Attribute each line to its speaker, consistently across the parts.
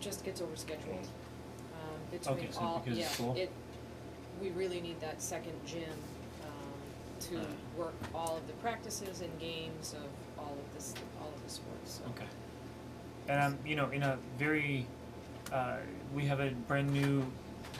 Speaker 1: just gets overscheduled. Um,
Speaker 2: Okay,
Speaker 1: between
Speaker 2: so
Speaker 1: all,
Speaker 2: because of
Speaker 1: yeah,
Speaker 2: school?
Speaker 1: it, we really need that second gym, um, to
Speaker 2: Ah.
Speaker 1: work all of the practices and games of all of this, all of the sports, so.
Speaker 2: Okay. And um, you know, in a very, uh, we have a brand new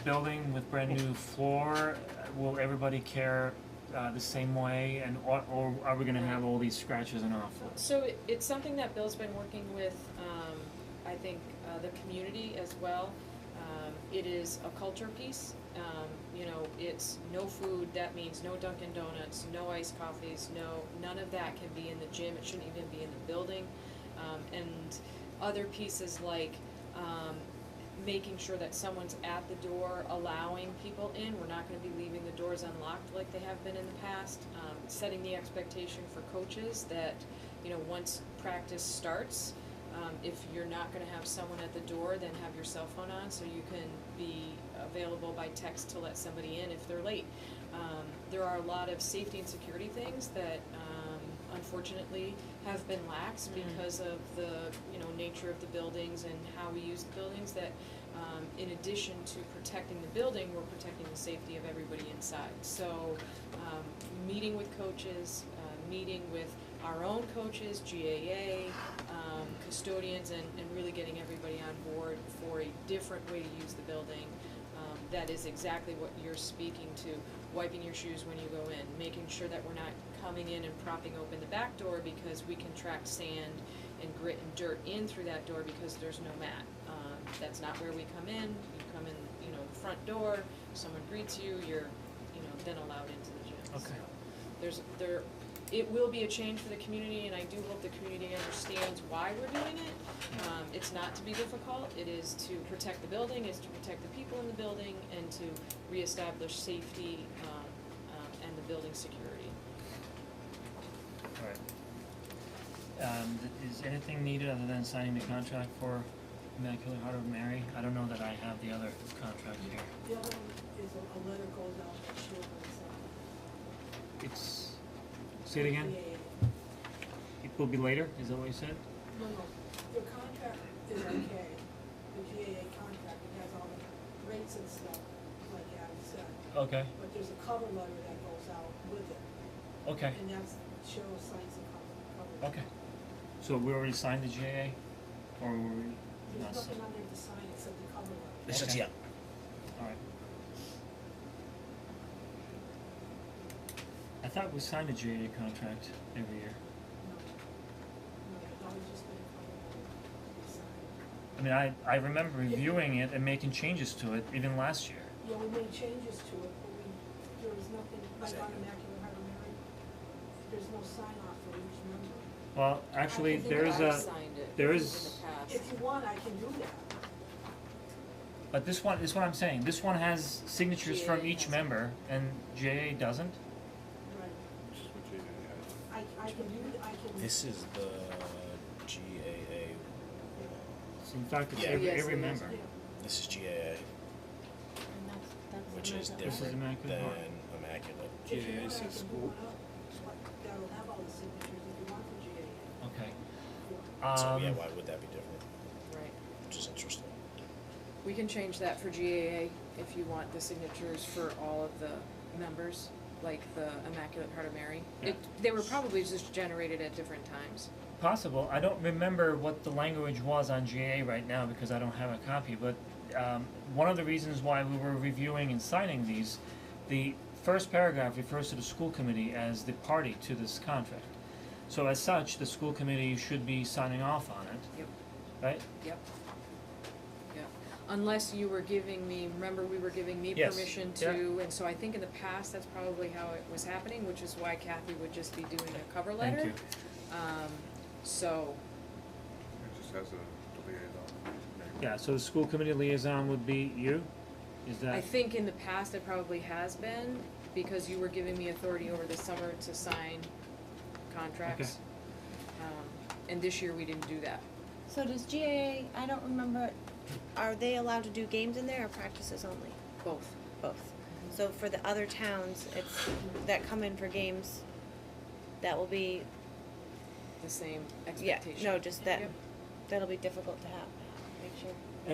Speaker 2: building with brand new floor. Will everybody care uh, the same way, and or, or are we gonna have all these scratches in our floors?
Speaker 1: So it, it's something that Bill's been working with, um, I think, uh, the community as well. Um, it is a culture piece, um, you know, it's no food, that means no Dunkin' Donuts, no iced coffees, no, none of that can be in the gym, it shouldn't even be in the building. Um, and other pieces like, um, making sure that someone's at the door allowing people in, we're not gonna be leaving the doors unlocked like they have been in the past. Um, setting the expectation for coaches that, you know, once practice starts, um, if you're not gonna have someone at the door, then have your cell phone on so you can be available by text to let somebody in if they're late. Um, there are a lot of safety and security things that, um, unfortunately have been lax because of the, you know, nature of the buildings and how we use the buildings that, um, in addition to protecting the building, we're protecting the safety of everybody inside. So, um, meeting with coaches, uh, meeting with our own coaches, GAA, um, custodians, and, and really getting everybody on board for a different way to use the building. Um, that is exactly what you're speaking to, wiping your shoes when you go in, making sure that we're not coming in and propping open the back door because we can track sand and grit and dirt in through that door because there's no mat. Um, that's not where we come in, you come in, you know, the front door, someone greets you, you're, you know, then allowed into the gym,
Speaker 2: Okay.
Speaker 1: So there's, there, it will be a change for the community, and I do hope the community understands why we're doing it. Um, it's not to be difficult, it is to protect the building, it's to protect the people in the building, and to reestablish safety, um, um, and the building security.
Speaker 2: All right. Um, th- is anything needed other than signing the contract for Immaculate Heart of Mary? I don't know that I have the other contract here.
Speaker 3: The other one is a, a letter goes out to children, so.
Speaker 2: It's say it again.
Speaker 3: Yeah, yeah,
Speaker 2: It will be later. Is that what you said?
Speaker 3: yeah. No, no, the contract is okay, the GAA contract, it has all the rates and stuff, like Adam said.
Speaker 2: Okay.
Speaker 3: But there's a cover letter that goes out with it,
Speaker 2: Okay.
Speaker 3: and that's, Cheryl signs the cover, cover. letter.
Speaker 2: Okay. So we already signed the GAA, or were we?
Speaker 3: There's nothing on there to sign except the cover letter.
Speaker 4: It's just,
Speaker 2: Okay.
Speaker 4: yeah,
Speaker 2: Alright. I thought we signed a GAA contract every year.
Speaker 3: No, no, it's always just been a cover letter, to sign.
Speaker 2: I mean, I, I remember reviewing it and making changes to it even last year.
Speaker 3: Yeah, we made changes to it, but we, there was nothing, like on Immaculate Heart of Mary, there's no sign off for each member.
Speaker 2: Well, actually, there is
Speaker 1: I think I've
Speaker 2: a,
Speaker 1: signed it
Speaker 2: there
Speaker 1: in
Speaker 2: is-
Speaker 1: the past.
Speaker 3: If you want, I can do that.
Speaker 2: but this one, this is what I'm saying, this one has signatures from
Speaker 1: GAA
Speaker 2: each
Speaker 1: has-
Speaker 2: member and GAA doesn't?
Speaker 3: Right.
Speaker 5: Which is what you had.
Speaker 3: I, I can do, I can.
Speaker 4: this is the GAA.
Speaker 2: So In fact, it's
Speaker 4: Yeah.
Speaker 2: every,
Speaker 1: Yes,
Speaker 2: every
Speaker 1: it is.
Speaker 2: member.
Speaker 3: Yeah.
Speaker 4: This is GAA,
Speaker 6: And that's, that's.
Speaker 4: which is
Speaker 6: another-
Speaker 2: This is
Speaker 4: different
Speaker 2: Immaculate
Speaker 4: than
Speaker 2: Heart.
Speaker 4: Immaculate.
Speaker 3: If you
Speaker 5: GAA
Speaker 3: want, I
Speaker 5: says
Speaker 3: can do
Speaker 5: school.
Speaker 3: one up, what- That'll have all the signatures if you want for GAA.
Speaker 2: Okay.
Speaker 4: So yeah,
Speaker 2: Um,
Speaker 4: why would that be different?
Speaker 1: Right.
Speaker 4: Which is interesting.
Speaker 1: We can change that for GAA if you want the signatures for all of the members, like the Immaculate Heart of Mary. It, they were probably just generated at different times.
Speaker 2: Possible. I don't remember what the language was on GA right now because I don't have a copy, but um, one of the reasons why we were reviewing and signing these, the first paragraph refers to the school committee as the party to this contract. So as such, the school committee should be signing off on it,
Speaker 1: Yep.
Speaker 2: right?
Speaker 1: Yep. Yep. Unless you were giving me, remember we were giving me
Speaker 2: Yes.
Speaker 1: permission
Speaker 2: Yeah.
Speaker 1: to, and so I think in the past, that's probably how it was happening, which is why Kathy would just be doing a cover letter.
Speaker 2: Thank you.
Speaker 1: Um, so,
Speaker 5: It just has a liaison.
Speaker 2: Yeah, so the school committee liaison would be you? Is
Speaker 1: I
Speaker 2: that,
Speaker 1: think in the past it probably has been, because you were giving me authority over the summer to sign contracts. Um, and this year we didn't do that.
Speaker 6: So does GAA, I don't remember, are they allowed to do games in there or practices only?
Speaker 1: Both.
Speaker 6: Both. So for the other towns, it's, that come in for games, that will be,
Speaker 1: The same
Speaker 6: yeah,
Speaker 1: expectation.
Speaker 6: no, just that,
Speaker 1: Yep.
Speaker 6: that'll be difficult to have.